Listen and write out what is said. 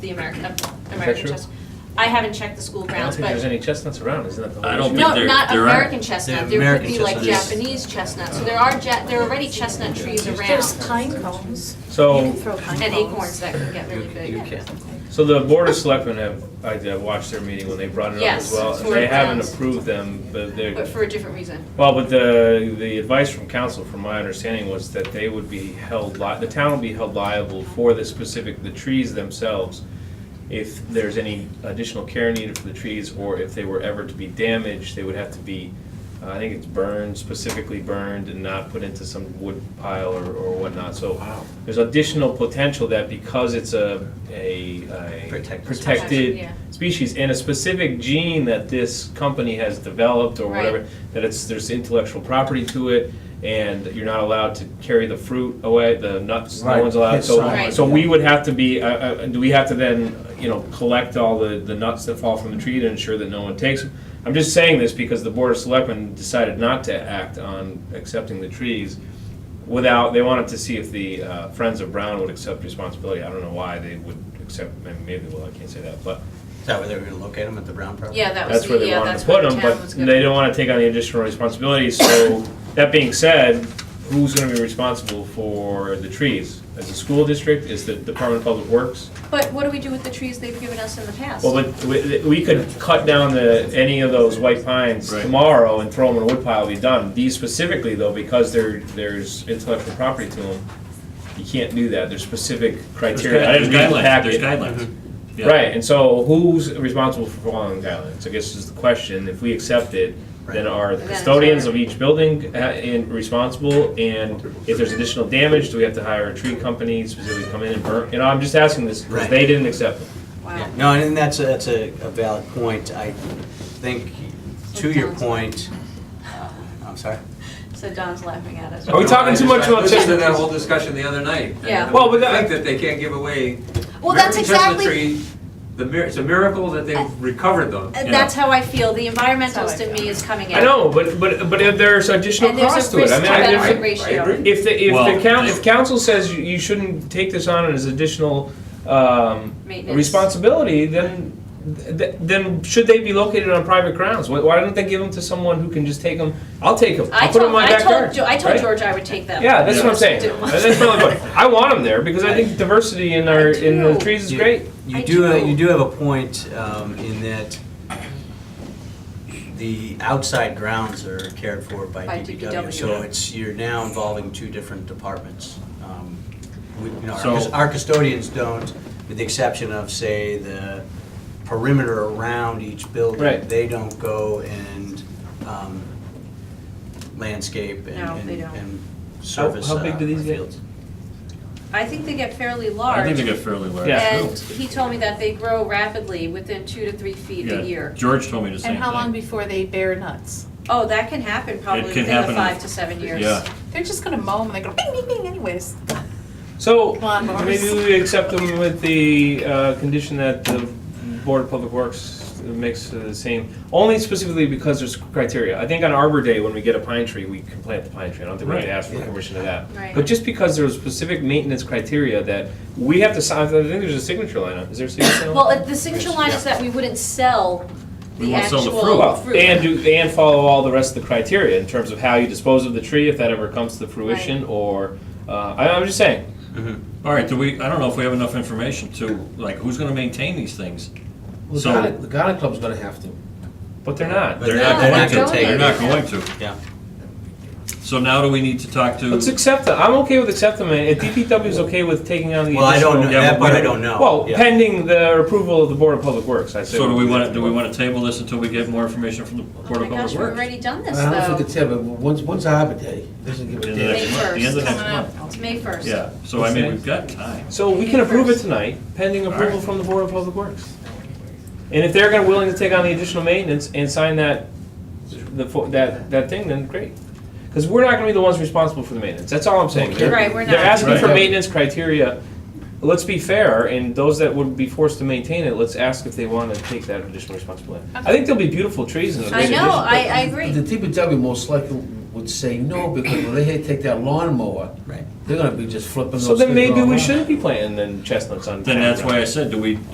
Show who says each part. Speaker 1: the American, of American
Speaker 2: true?
Speaker 1: chestnut. I haven't checked the school
Speaker 2: I don't
Speaker 1: grounds,
Speaker 2: think
Speaker 1: but,
Speaker 2: there's any chestnuts around, isn't that the whole
Speaker 3: I don't
Speaker 2: issue?
Speaker 3: think
Speaker 1: no,
Speaker 3: there-
Speaker 1: not
Speaker 3: there are.
Speaker 1: American chestnut, there
Speaker 4: They're
Speaker 1: would
Speaker 4: American
Speaker 1: be like
Speaker 4: chestnuts.
Speaker 1: Japanese chestnut, so there are ja, there are already chestnut trees
Speaker 5: There's
Speaker 1: around
Speaker 5: pine cones. You
Speaker 2: So,
Speaker 5: can throw pine
Speaker 1: and
Speaker 5: cones.
Speaker 1: acorns that can get really
Speaker 4: You-
Speaker 1: big.
Speaker 4: You can.
Speaker 2: so the board of selectmen have, I uh, watched their meeting when they brought it up
Speaker 1: Yes,
Speaker 2: as well, and
Speaker 1: for
Speaker 2: they haven't
Speaker 1: grounds.
Speaker 2: approved them, but they're.
Speaker 1: But for a different reason.
Speaker 2: Well, but the, the advice from council, from my understanding, was that they would be held li, the town would be held liable for the specific, the trees themselves, if there's any additional care needed for the trees, or if they were ever to be damaged, they would have to be, uh, I think it's burned, specifically burned, and not put into some wood pile or, or whatnot, so there's additional potential that because it's a, a, a
Speaker 4: Protected
Speaker 2: protected
Speaker 1: Yeah.
Speaker 2: species and a specific gene that this company has developed or
Speaker 1: Right.
Speaker 2: whatever, that it's, there's intellectual property to it, and you're not allowed to carry the fruit away, the nuts, no
Speaker 6: Right,
Speaker 2: one's allowed,
Speaker 6: his
Speaker 2: so,
Speaker 1: side.
Speaker 2: so we would have to be, uh, uh, do we have to then, you know, collect all the, the nuts that fall from the tree to ensure that no one takes them? I'm just saying this because the Board of Selectmen decided not to act on accepting the trees without, they wanted to see if the uh, Friends of Brown would accept responsibility. I don't know why they would accept, maybe, well, I can't say that, but
Speaker 4: Is that where they were gonna locate them, at the Brown property?
Speaker 1: Yeah, that was
Speaker 2: that's where
Speaker 1: the,
Speaker 2: they
Speaker 1: yeah,
Speaker 2: wanted
Speaker 1: that's
Speaker 2: to
Speaker 1: what
Speaker 2: put
Speaker 1: the
Speaker 2: them,
Speaker 1: town
Speaker 2: but
Speaker 1: was
Speaker 2: they
Speaker 1: gonna.
Speaker 2: don't want to take on the additional responsibility. So, that being said, who's going to be responsible for the trees? As a school district, is the Department of Public Works?
Speaker 1: But what do we do with the trees they've given us in the past?
Speaker 2: Well, but we, we could cut down the, any of those white pines
Speaker 3: Right.
Speaker 2: tomorrow and throw them in a woodpile, be done. These specifically though, because there, there's intellectual property to them, you can't do that, there's specific criteria. I
Speaker 3: There's
Speaker 2: didn't read the
Speaker 3: guidelines,
Speaker 2: packet.
Speaker 3: there's guidelines. Yeah.
Speaker 2: Right, and so who's responsible for following guidelines, I guess is the question, if we accept it, then
Speaker 4: Right.
Speaker 2: are the
Speaker 1: Then it's
Speaker 2: custodians
Speaker 1: our-
Speaker 2: of each building uh, in- responsible? And if there's additional damage, do we have to hire a tree company specifically to come in and burn? You know, I'm just asking this, because
Speaker 4: Right.
Speaker 2: they didn't accept them.
Speaker 1: Wow.
Speaker 4: No, and that's, a- that's a a valid point. I think, to your point, uh, I'm sorry?
Speaker 1: So Don's laughing at us.
Speaker 2: Are we talking too much about
Speaker 6: Listen to
Speaker 2: chestnuts?
Speaker 6: that whole discussion the other night.
Speaker 1: Yeah.
Speaker 2: Well, but
Speaker 6: I
Speaker 2: that-
Speaker 6: think that they can't give away.
Speaker 1: Well, that's
Speaker 6: American chestnut
Speaker 1: exactly-
Speaker 6: tree. The mir, it's a miracle that they've recovered them.
Speaker 1: And
Speaker 3: Yeah.
Speaker 1: uh, That's how I feel, the
Speaker 5: That's
Speaker 1: environmentalist
Speaker 5: how I
Speaker 1: in me is coming out.
Speaker 2: I know, but, but, but if there's additional
Speaker 1: And there's
Speaker 2: cost
Speaker 1: a
Speaker 2: to it,
Speaker 1: risk
Speaker 2: I
Speaker 1: to
Speaker 2: mean, I-
Speaker 1: benefit
Speaker 2: if,
Speaker 6: I
Speaker 1: ratio.
Speaker 6: agree.
Speaker 2: if the,
Speaker 3: Well,
Speaker 2: if the coun,
Speaker 3: they-
Speaker 2: if council says you- you shouldn't take this on as additional, um,
Speaker 1: Maintenance.
Speaker 2: responsibility, then, th- then should they be located on private grounds? Why, why don't they give them to someone who can just take them? I'll take them,
Speaker 1: I
Speaker 2: I'll put them in
Speaker 1: told,
Speaker 2: my
Speaker 1: I told,
Speaker 2: backyard.
Speaker 1: Jo- I told
Speaker 2: right?
Speaker 1: George I would take them.
Speaker 2: Yeah, that's what I'm
Speaker 1: Just
Speaker 2: saying,
Speaker 1: didn't want-
Speaker 2: that's my point, I want them there, because I think diversity in our, in
Speaker 1: do.
Speaker 2: the trees is
Speaker 4: You-
Speaker 2: great.
Speaker 1: I
Speaker 4: You do,
Speaker 1: do.
Speaker 4: have- you do have a point um, in that the outside grounds are cared for
Speaker 1: By
Speaker 4: by
Speaker 1: DPW.
Speaker 4: DPW. So it's, you're now involving two different departments. Um, we- you know, our
Speaker 3: So-
Speaker 4: cus- Our custodians don't, with the exception of, say, the perimeter around each building.
Speaker 2: Right.
Speaker 4: They don't go and um, landscape and-
Speaker 1: No,
Speaker 4: and
Speaker 1: they don't.
Speaker 4: and service
Speaker 2: how
Speaker 4: uh,
Speaker 2: big
Speaker 4: our
Speaker 2: do these get?
Speaker 4: fields.
Speaker 1: I think they get fairly
Speaker 3: I
Speaker 1: large.
Speaker 3: think they get fairly large.
Speaker 2: Yeah.
Speaker 1: And he told me that they grow rapidly within two to three feet
Speaker 3: Yeah.
Speaker 1: a year.
Speaker 3: George told me the same
Speaker 5: And
Speaker 3: thing.
Speaker 5: how long before they bear nuts?
Speaker 1: Oh, that can happen probably
Speaker 3: can
Speaker 1: within the
Speaker 3: happen.
Speaker 1: five to seven years.
Speaker 3: Yeah.
Speaker 5: They're just gonna mow 'em and they go bing, bing, bing anyways.
Speaker 2: So,
Speaker 5: Lawnmowers.
Speaker 2: maybe we accept them with the uh, condition that the Board of Public Works makes the same, only specifically because there's criteria. I think on Arbor Day, when we get a pine tree, we can plant the pine tree, I don't think we have to
Speaker 3: Right.
Speaker 2: ask for permission to that.
Speaker 1: Right.
Speaker 2: But just because there's specific maintenance criteria that we have to sign, I think there's a signature line on, is there a signature line?
Speaker 1: Well, uh, the signature line is that we wouldn't sell
Speaker 3: We
Speaker 1: the
Speaker 3: won't
Speaker 1: actual
Speaker 3: sell the
Speaker 2: Well,
Speaker 1: fruit. Oh
Speaker 2: And do, and follow all the rest of the criteria in terms of how you dispose of the tree, if that ever comes to fruition, or, uh, I- I'm just saying,
Speaker 3: All right, do we, I don't know if we have enough information to, like, who's gonna maintain these things?
Speaker 7: Well,
Speaker 3: So-
Speaker 7: the Ghana, the Ghana Club's gonna have to.
Speaker 2: but they're not.
Speaker 4: But
Speaker 3: They're
Speaker 4: they're
Speaker 3: not
Speaker 4: not
Speaker 3: going
Speaker 4: gonna
Speaker 3: to,
Speaker 4: take
Speaker 3: they're
Speaker 4: it.
Speaker 3: not going to.
Speaker 4: Yeah.
Speaker 3: So now do we need to talk to?
Speaker 2: Let's accept them. I'm okay with accepting them, and DPW is okay with taking on the
Speaker 4: Well, I don't know,
Speaker 2: additional-
Speaker 3: Yeah,
Speaker 4: that
Speaker 3: but
Speaker 4: part
Speaker 3: we
Speaker 4: I
Speaker 3: don't-
Speaker 4: don't know.
Speaker 2: Well,
Speaker 4: Yeah.
Speaker 2: pending the approval of the Board of Public Works, I say.
Speaker 3: So do we want
Speaker 2: want
Speaker 3: to, do we want to table this until we get more information from the
Speaker 1: Oh
Speaker 3: Board
Speaker 1: my gosh,
Speaker 3: of Public
Speaker 1: we've
Speaker 3: Works?
Speaker 1: already done
Speaker 7: I
Speaker 1: this
Speaker 7: don't know if we
Speaker 1: though.
Speaker 7: could say, but once, once Arbor Day, doesn't give
Speaker 3: The
Speaker 7: a
Speaker 3: end of
Speaker 7: damn.
Speaker 1: May
Speaker 3: next month, the end of
Speaker 1: first.
Speaker 3: next month.
Speaker 1: It's May first.
Speaker 3: Yeah, so I mean, we've got time.
Speaker 2: So we can approve it tonight, pending approval
Speaker 3: Alright.
Speaker 2: from the Board of Public Works. And if they're gonna, willing to take on the additional maintenance and sign that, the, fo- that, that thing, then great. Because we're not gonna be the ones responsible for the maintenance, that's all I'm saying. They're-
Speaker 1: Right, we're
Speaker 2: They're
Speaker 1: not.
Speaker 2: asking for
Speaker 3: Right.
Speaker 2: maintenance criteria. Let's be fair, and those that would be forced to maintain it, let's ask if they want to take that additional responsibility. I think there'll be beautiful trees in the
Speaker 1: I know, I, I agree.
Speaker 7: The DPW most likely would say no, because when they take that lawnmower,
Speaker 4: Right.
Speaker 7: they're gonna be just flipping those
Speaker 2: So
Speaker 7: things
Speaker 2: then maybe
Speaker 7: all
Speaker 2: we
Speaker 7: around.
Speaker 2: shouldn't be planting then chestnuts on.
Speaker 3: Then
Speaker 2: town
Speaker 3: that's why I
Speaker 2: grounds.
Speaker 3: said, do we